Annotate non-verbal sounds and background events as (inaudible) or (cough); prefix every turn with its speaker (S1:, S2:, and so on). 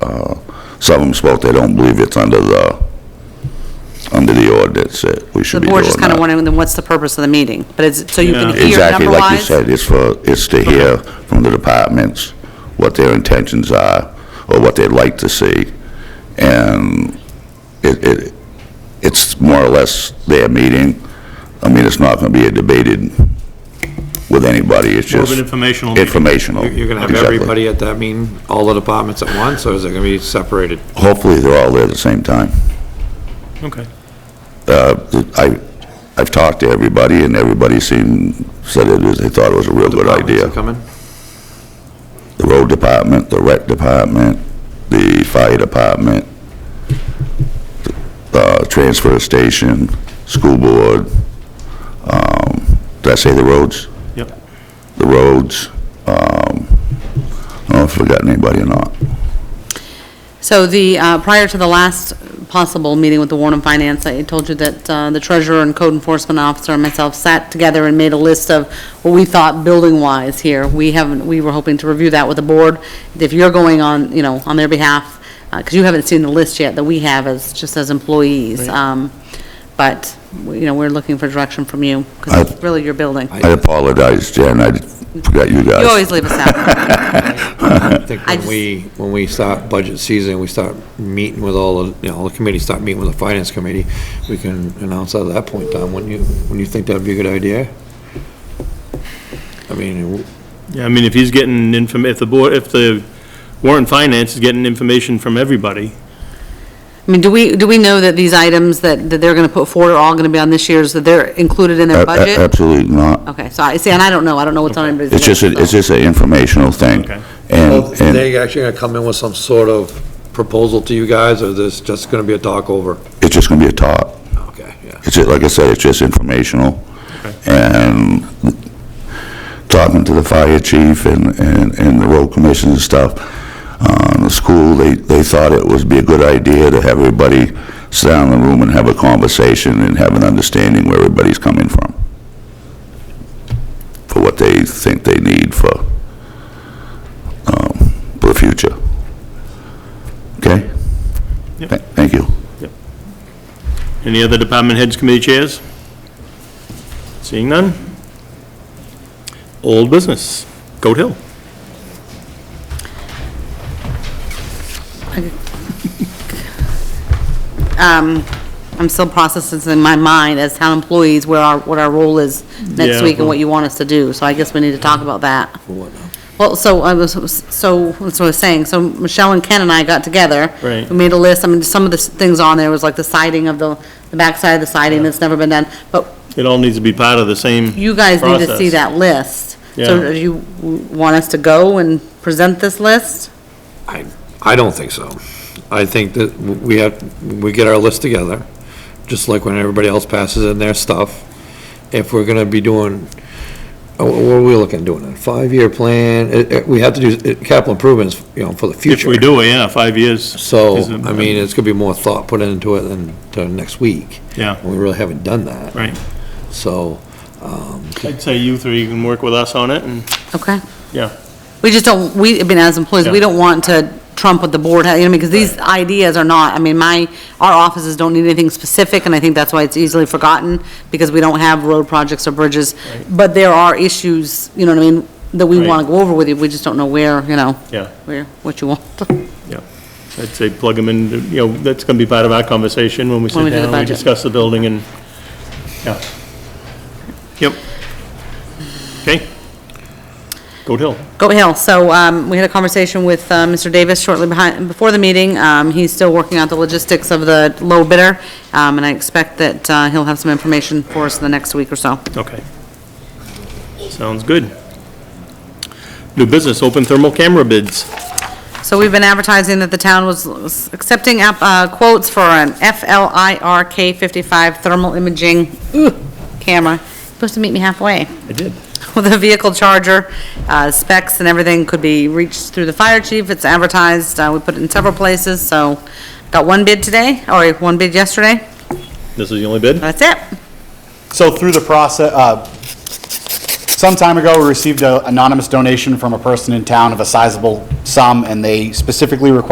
S1: Uh, some of them spoke, they don't believe it's under the, under the ordinance that we
S2: The
S1: should be doing
S2: board's
S1: that.
S2: just kind of wondering, then what's the purpose of the meeting? But it's, so you can
S3: Yeah.
S2: hear
S1: Exactly, like you
S2: number-wise?
S1: said, it's for, it's to hear from the departments what their intentions are, or what they'd like to see, and it, it, it's more or less their meeting. I mean, it's not gonna be a debated with anybody, it's
S3: More of
S1: just
S3: an informational meeting.
S1: informational.
S4: You're going to have
S1: Exactly.
S4: everybody at that meeting, all the departments at once, or is it going to be separated?
S1: Hopefully, they're all there at the same time.
S3: Okay.
S1: Uh, I, I've talked to everybody, and everybody seemed, said it is, they thought it was a real good
S4: Departments
S1: idea.
S4: are Coming?
S1: the road department, the rec department, the fire department, the uh, transfer station, school board, um, did I say the roads?
S3: Yep.
S1: The roads, um, I don't know if I forgot anybody or not.
S2: So the, uh, prior to the last possible meeting with the Warren and Finance, I told you that uh, the treasurer and code enforcement officer and myself sat together and made a list of what we thought building-wise here. We haven't, we were hoping to review that with the board, if you're going on, you know, on their behalf, because you haven't seen the list yet that we have as, just as employees. Um, But, you know, we're looking for direction from you, because it's really your building.
S1: I apologize, Jen, I forgot you guys.
S2: You always leave us out.
S4: I think
S2: I
S4: when
S2: just-
S4: we, when we start budget season, we start meeting with all, the you know, the committees, start meeting with the finance committee, we can announce at that point, Tom, when you, when you think that'd be a good idea? I mean,
S3: Yeah, I mean, if he's getting inform, if the board, if the Warren Finance is getting information from everybody,
S2: I mean, do we, do we know that these items that, that they're going to put forward are all going to be on this year's, that they're included in
S1: A-
S2: their
S1: a-
S2: budget?
S1: Absolutely not.
S2: Okay, so I, see, and I don't know, I don't know what's on anybody's
S1: uh, It's
S2: list.
S1: just, a- it's
S2: so-
S1: just an informational thing.
S3: Okay.
S4: Well,
S1: And, and
S4: they actually gonna come in with some sort of proposal to you guys, or this just gonna be a talk over?
S1: it's just gonna be a talk.
S4: Okay, yeah.
S1: It's, ju- like I said, it's just informational. And talking to the fire chief and, and, and the road commission and stuff, um, the school, they, they thought it would be a good idea to have everybody sit down in the room and have a conversation and have an understanding where everybody's coming from. For what they think they need for, um, for the future. Okay?
S3: Yep.
S1: Tha- Thank you.
S3: any other department heads, committee chairs? Seeing none? Old business, Goat Hill.
S2: Um, I'm still processing in my mind as town employees where our, what our role is next
S3: Yeah,
S2: week and
S3: well-
S2: what you want us to do, so I guess we need to talk about that.
S4: For what now?
S2: Well, so I was, so, that's what I was saying, so Michelle and Ken and I got together.
S3: Right.
S2: We made a list, I mean, some of the s- things on there was like the siding of the, the backside of the siding that's never been done, but
S3: It all needs to be part of the same.
S2: you guys need to see
S3: process.
S2: that list.
S3: Yeah.
S2: So do you want us to go and present this list?
S4: I, I don't think so. I think that we have, we get our list together, just like when everybody else passes in their stuff. If we're gonna be doing, uh, what are we looking at doing, a five-year plan? Uh, uh, We have to do uh, capital improvements, you know, for the
S3: If
S4: future.
S3: we do, it, yeah, five years.
S4: So,
S3: is a-
S4: I mean, it's gonna be more thought put into it than to next week.
S3: Yeah.
S4: We really haven't done that.
S3: Right.
S4: So, um,
S3: I'd say you three can work with us on it, and,
S2: Okay.
S3: yeah.
S2: We just don't, we, I mean, as employees, we
S3: Yeah.
S2: don't want to trump what the board, has, you know, because these ideas are not, I mean, my, our offices don't need anything specific, and I think that's why it's easily forgotten, because we don't have road projects or bridges. But there are issues, you know what I mean, that we
S3: Right.
S2: want to go over with you, we just don't know where, you know.
S3: Yeah.
S2: Where, what you want. (laughs)
S3: Yeah, I'd say plug them in, you know, that's going to be part of our conversation when we
S2: When
S3: sit
S2: we do the
S3: down, we
S2: budget.
S3: discuss the building and, yeah. Yep. Okay. Goat Hill.
S2: Goat Hill, so, um, we had a conversation with, uh, Mr. Davis shortly behind, before the meeting, um, he's still working out the logistics of the low bidder, um, and I expect that, uh, he'll have some information for us in the next week or so.
S3: Okay. Sounds good. New business, open thermal camera bids.
S2: So we've been advertising that the town was accepting app- uh, quotes for an FLIRK 55 thermal imaging ugh, camera. Supposed to meet me halfway
S3: I did.
S2: (laughs) with a vehicle charger, uh, specs and everything could be reached through the fire chief. It's advertised, uh, we put it in several places, so got one bid today, or one bid yesterday.
S3: This is the only bid?
S2: That's it.
S5: So through the process, uh, some time ago, we received an anonymous donation from a person in town of a sizable sum, and they specifically requested